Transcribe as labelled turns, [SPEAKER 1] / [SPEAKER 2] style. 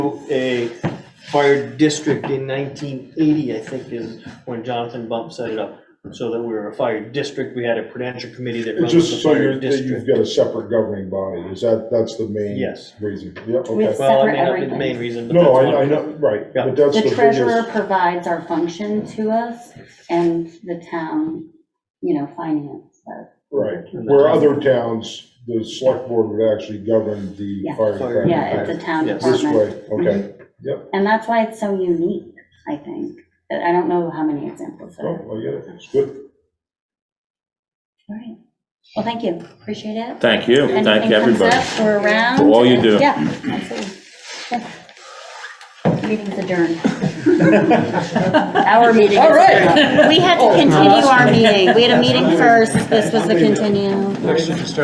[SPEAKER 1] a fire district in nineteen eighty, I think, is when Jonathan Bump set it up. So that we were a fire district, we had a prudential committee that runs the
[SPEAKER 2] Just so
[SPEAKER 1] fire
[SPEAKER 2] you're, that you've
[SPEAKER 1] district.
[SPEAKER 2] got a separate governing body, is that, that's the main?
[SPEAKER 1] Yes.
[SPEAKER 2] Reason, yeah,
[SPEAKER 3] With-
[SPEAKER 2] okay.
[SPEAKER 1] Well, I mean,
[SPEAKER 3] Separate
[SPEAKER 1] not be the
[SPEAKER 3] everything.
[SPEAKER 1] main reason, but that's
[SPEAKER 2] No,
[SPEAKER 1] one.
[SPEAKER 2] I, I know, right,
[SPEAKER 1] Yeah.
[SPEAKER 2] but that's the
[SPEAKER 3] The treasurer
[SPEAKER 2] biggest,
[SPEAKER 3] provides our function to us and the town, you know, finance, so,
[SPEAKER 2] right. Where other towns, the select board would actually govern the
[SPEAKER 3] Yeah.
[SPEAKER 2] fire
[SPEAKER 1] Fire
[SPEAKER 2] department.
[SPEAKER 3] yeah, it's a town
[SPEAKER 1] Yes.
[SPEAKER 2] This
[SPEAKER 3] department.
[SPEAKER 2] way, okay,
[SPEAKER 3] And that's why it's so unique, I think. But I don't know how many examples there are.
[SPEAKER 2] oh, I get it, it's good.
[SPEAKER 3] All right. Well, thank you, appreciate it.
[SPEAKER 4] Thank you, thank
[SPEAKER 3] Anything
[SPEAKER 4] you,
[SPEAKER 3] comes
[SPEAKER 4] everybody.
[SPEAKER 3] up, we're around.
[SPEAKER 4] For all you do.
[SPEAKER 3] Yeah, absolutely. Yeah. Meeting's adjourned. Our meeting is adjourned. We had to continue our meeting. We had a meeting first, this was the continue.